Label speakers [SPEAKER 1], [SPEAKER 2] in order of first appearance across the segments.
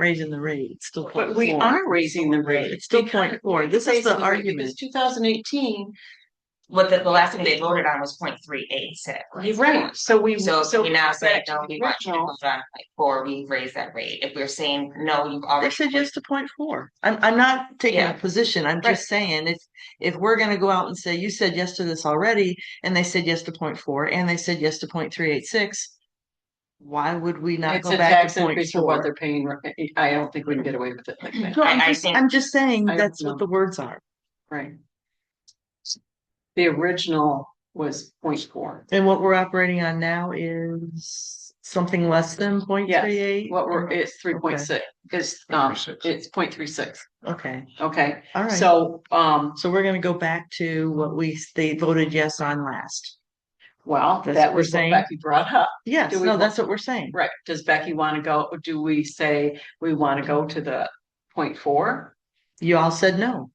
[SPEAKER 1] raising the rate, it's still.
[SPEAKER 2] But we
[SPEAKER 1] 0.4.
[SPEAKER 2] are raising the rate.
[SPEAKER 1] It's still point four. This is the argument.
[SPEAKER 2] Two thousand eighteen,
[SPEAKER 3] What the, the last thing they voted on was 0.386. right?
[SPEAKER 2] you're right, so we.
[SPEAKER 3] So if we now say,
[SPEAKER 2] back to
[SPEAKER 3] don't
[SPEAKER 2] the
[SPEAKER 3] be watching,
[SPEAKER 2] original.
[SPEAKER 3] like, or we raise that rate, if we're saying, no, you've already.
[SPEAKER 1] They said yes to point four. I'm, I'm not taking a
[SPEAKER 3] Yeah.
[SPEAKER 1] position. I'm
[SPEAKER 3] Right.
[SPEAKER 1] just saying if, if we're gonna go out and say, you said yes to this already, and they said yes to point four, and they said yes to point three eight six. Why would we not
[SPEAKER 4] It's
[SPEAKER 1] go
[SPEAKER 4] a
[SPEAKER 1] back
[SPEAKER 4] tax
[SPEAKER 1] to point
[SPEAKER 4] increase for what
[SPEAKER 1] four?
[SPEAKER 4] they're paying. right? I don't think we can get away with it like that,
[SPEAKER 1] No, I'm
[SPEAKER 3] I- I
[SPEAKER 1] just,
[SPEAKER 3] think-
[SPEAKER 1] I'm just saying
[SPEAKER 4] I don't
[SPEAKER 1] that's what
[SPEAKER 4] know.
[SPEAKER 1] the words are.
[SPEAKER 4] right? The original was point four.
[SPEAKER 1] And what we're operating on now is something less than point three eight?
[SPEAKER 4] What we're, it's three point six, it's, um, it's point three six,
[SPEAKER 1] Okay,
[SPEAKER 4] okay?
[SPEAKER 1] all right. So,
[SPEAKER 4] So, um,
[SPEAKER 1] so we're gonna go back to what we, they voted yes on last.
[SPEAKER 4] well,
[SPEAKER 1] That's what
[SPEAKER 4] that
[SPEAKER 1] we're
[SPEAKER 4] was what
[SPEAKER 1] saying.
[SPEAKER 4] Becky brought up.
[SPEAKER 1] Yes,
[SPEAKER 4] Do we
[SPEAKER 1] no,
[SPEAKER 4] want-
[SPEAKER 1] that's what we're saying.
[SPEAKER 4] Right, does Becky want to go, do we say we want to go to the point four?
[SPEAKER 1] You all said no.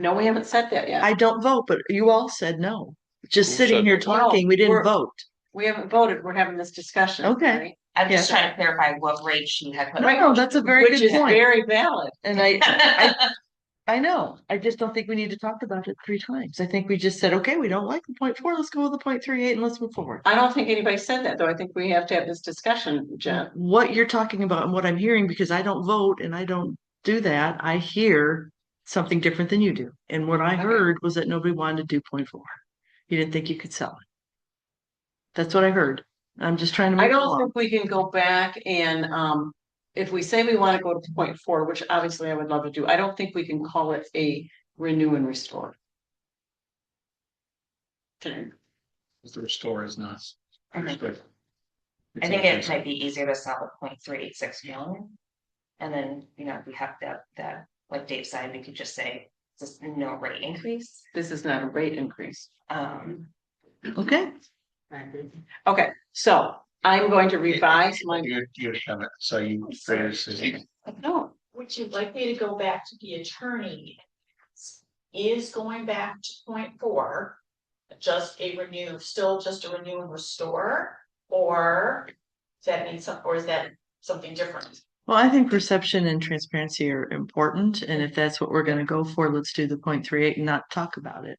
[SPEAKER 4] No, we haven't said that yet.
[SPEAKER 1] I don't vote, but you all said no. Just
[SPEAKER 5] Who
[SPEAKER 1] sitting
[SPEAKER 5] said
[SPEAKER 1] here
[SPEAKER 5] no?
[SPEAKER 1] talking, we
[SPEAKER 4] We're-
[SPEAKER 1] didn't vote.
[SPEAKER 4] We haven't voted, we're having this discussion.
[SPEAKER 1] Okay.
[SPEAKER 4] right?
[SPEAKER 3] I'm just
[SPEAKER 1] Yeah.
[SPEAKER 3] trying to clarify what rate she had put.
[SPEAKER 1] No, that's a very
[SPEAKER 4] Which
[SPEAKER 1] good
[SPEAKER 4] is
[SPEAKER 1] point.
[SPEAKER 4] very valid.
[SPEAKER 1] And I, I know, I just don't think we need to talk about it three times. I think we just said, okay, we don't like the point four, let's go with the point three eight and let's move forward.
[SPEAKER 4] I don't think anybody said that, though. I think we have to have this discussion, Jen.
[SPEAKER 1] What you're talking about and what I'm hearing, because I don't vote and I don't do that, I hear something different than you do. And what I heard was that nobody wanted to do point four. You didn't think you could sell it. That's what I heard. I'm just trying to
[SPEAKER 4] I
[SPEAKER 1] make it
[SPEAKER 4] don't
[SPEAKER 1] along.
[SPEAKER 4] think we can go back and, um, if we say we want to go to point four, which obviously I would love to do, I don't think we can call it a renew and restore. Okay.
[SPEAKER 5] The restore is not.
[SPEAKER 4] Okay.
[SPEAKER 3] I think it might be easier to sell at point three eight six million. And then, you know, if we have that, that, like Dave said, we could just say, just no rate increase,
[SPEAKER 4] This is not a rate increase.
[SPEAKER 3] um.
[SPEAKER 1] Okay,
[SPEAKER 4] Okay, so I'm going to revise my,
[SPEAKER 5] You, you have it, so you, there's,
[SPEAKER 4] no,
[SPEAKER 6] Would you like me to go back to the attorney? Is going back to point four. Just a renew, still just a renew and restore, or? Does that mean some, or is that something different?
[SPEAKER 1] well, I think perception and transparency are important, and if that's what we're gonna go for, let's do the point three eight and not talk about it.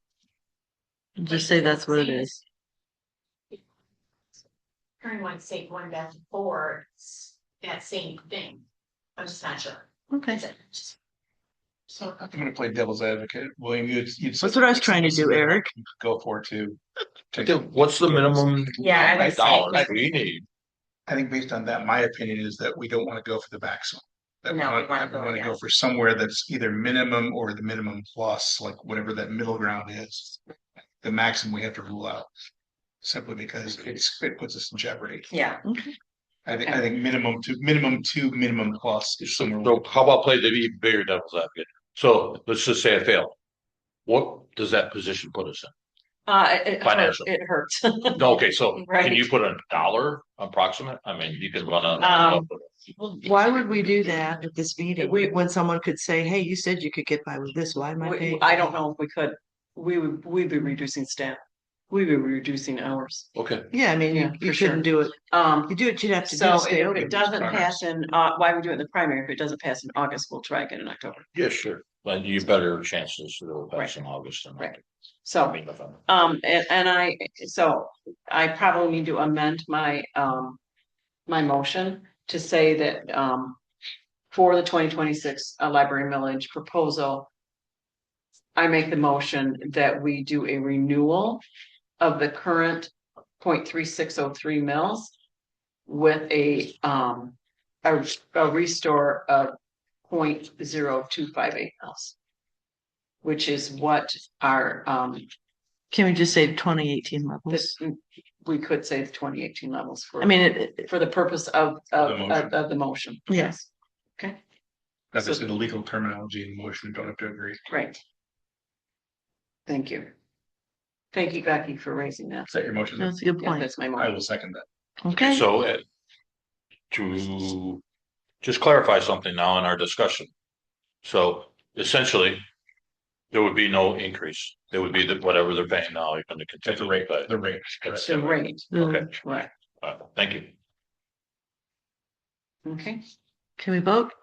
[SPEAKER 1] Just say that's what it is.
[SPEAKER 6] Attorney might say going back to four, it's that same thing. I'm just not sure.
[SPEAKER 1] Okay,
[SPEAKER 6] So,
[SPEAKER 5] I'm gonna play devil's advocate, William, you'd, you'd.
[SPEAKER 1] that's what I was trying to do, Eric.
[SPEAKER 5] Go for it too.
[SPEAKER 7] I think, What's the minimum?
[SPEAKER 3] Yeah, I would say-
[SPEAKER 7] Dollars we need.
[SPEAKER 5] I think based on that, my opinion is that we don't wanna go for the maximum. That we
[SPEAKER 3] No, we
[SPEAKER 5] want-
[SPEAKER 3] wanna
[SPEAKER 5] that we
[SPEAKER 3] go,
[SPEAKER 5] wanna
[SPEAKER 3] yeah.
[SPEAKER 5] go for somewhere that's either minimum or the minimum plus, like whatever that middle ground is. The maximum we have to rule out. Simply because it's, it puts us in jeopardy.
[SPEAKER 3] Yeah,
[SPEAKER 5] I think, I think minimum to, minimum to minimum plus is somewhere.
[SPEAKER 7] So how about play the even bigger devil's advocate? So let's just say I failed. What does that position put us
[SPEAKER 4] uh, it- it, hurt-
[SPEAKER 7] Financial.
[SPEAKER 4] it hurts.
[SPEAKER 7] in? Okay, so
[SPEAKER 4] Right.
[SPEAKER 7] can you put a dollar approximate? I mean, you can run a.
[SPEAKER 4] Um,
[SPEAKER 1] Why would we do that at this meeting? When someone could say, hey, you said you could get by with this, why am I
[SPEAKER 4] We-
[SPEAKER 1] paying?
[SPEAKER 4] I don't know if we could, we would, we'd be reducing staff. We'd be reducing hours.
[SPEAKER 7] Okay,
[SPEAKER 1] Yeah, I mean,
[SPEAKER 4] Yeah,
[SPEAKER 1] you, you
[SPEAKER 4] for sure.
[SPEAKER 1] shouldn't do it.
[SPEAKER 4] Um,
[SPEAKER 1] You do it, you'd have to do
[SPEAKER 4] So
[SPEAKER 1] to
[SPEAKER 4] if
[SPEAKER 1] stay open.
[SPEAKER 4] it doesn't
[SPEAKER 7] Right.
[SPEAKER 4] pass in, uh, why we do it in the primary, if it doesn't pass in August, we'll try again in October.
[SPEAKER 7] yeah, sure. But you better chances that it'll
[SPEAKER 4] Right.
[SPEAKER 7] pass in August than.
[SPEAKER 4] Right.
[SPEAKER 7] I
[SPEAKER 4] So,
[SPEAKER 7] mean, if I'm-
[SPEAKER 4] um, and, and I, so I probably need to amend my, um. My motion to say that, um, for the twenty twenty-six, uh, library millage proposal. I make the motion that we do a renewal of the current point three six oh three mills. With a, um, a, a restore of point zero two five eight mills. Which is what our, um,
[SPEAKER 1] Can we just say twenty eighteen levels?
[SPEAKER 4] this, mm, we could say the twenty eighteen levels for.
[SPEAKER 1] I mean, it, it-
[SPEAKER 4] For the purpose of, of,
[SPEAKER 5] The
[SPEAKER 4] of,
[SPEAKER 5] motion.
[SPEAKER 4] of the motion.
[SPEAKER 1] Yes.
[SPEAKER 4] Okay,
[SPEAKER 5] That's just the legal terminology in the motion, don't have to agree.
[SPEAKER 4] great. Thank you. Thank you, Becky, for raising that.
[SPEAKER 5] Is that your motion?
[SPEAKER 1] that's a good
[SPEAKER 4] Yeah,
[SPEAKER 1] point.
[SPEAKER 4] that's my
[SPEAKER 5] I
[SPEAKER 4] motion.
[SPEAKER 5] will second that.
[SPEAKER 1] Okay.
[SPEAKER 7] So uh, to just clarify something now in our discussion. So essentially, there would be no increase. There would be the whatever they're paying now, even the
[SPEAKER 5] At the
[SPEAKER 7] continue
[SPEAKER 5] rate,
[SPEAKER 7] rate, but
[SPEAKER 5] the rate. correct.
[SPEAKER 4] The rate,
[SPEAKER 1] The-
[SPEAKER 7] okay,
[SPEAKER 4] right,
[SPEAKER 7] uh, thank you.
[SPEAKER 4] okay.
[SPEAKER 1] Can we vote?